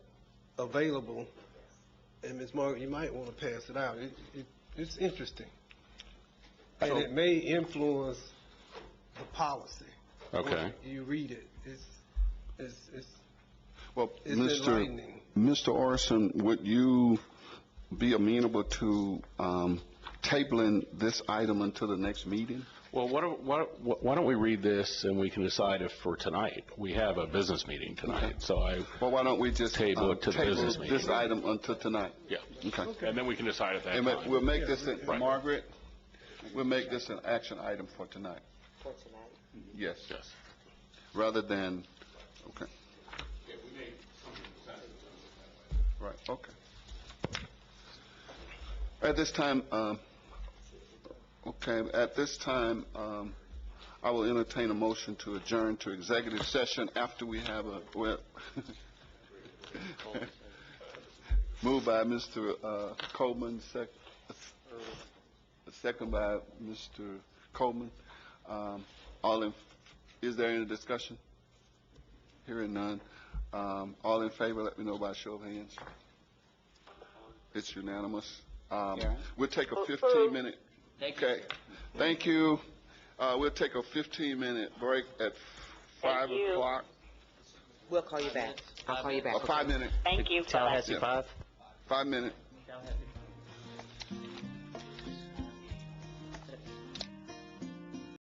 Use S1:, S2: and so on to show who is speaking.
S1: available. And Ms. Morgan, you might want to pass it out. It, it, it's interesting. And
S2: So-
S1: it may influence the policy. when
S2: Okay.
S1: You read it. It's, it's, it's,
S2: Well,
S1: It's
S2: Mr.
S1: enlightening.
S2: Mr. Orson, would you be amenable to um, tabling this item until the next meeting?
S3: Well, why don't- why don't why don't we read this, and we can decide if for tonight, we have a business meeting tonight, so I,
S2: Well, why don't we just
S3: Table
S2: uh,
S3: it to the business
S2: table
S3: meeting.
S2: this item until tonight?
S3: yeah.
S2: Okay.
S3: And then we can decide at that
S2: And ma- we'll
S3: time.
S2: make this, a-
S3: Right.
S2: Margaret, we'll make this an action item for tonight.
S4: for tonight.
S2: Yes,
S3: Yes.
S2: rather than, okay. Right, okay. At this time, um, okay, at this time, um, I will entertain a motion to adjourn to executive session after we have a, well, moved by Mr. uh, Coleman, sec, uh, second by Mr. Coleman. Um, all in, is there any discussion? Hearing none. Um, all in favor, let me know by show of hands. It's unanimous. Um, we'll take a fifteen minute. Okay. Thank you. Uh, we'll take a fifteen minute break at five
S4: you.
S2: o'clock.
S4: We'll call you back. I'll call you back.
S2: A five minute,
S4: Thank you.
S5: Tallahassee
S2: Yeah.
S5: Five?
S2: five minute.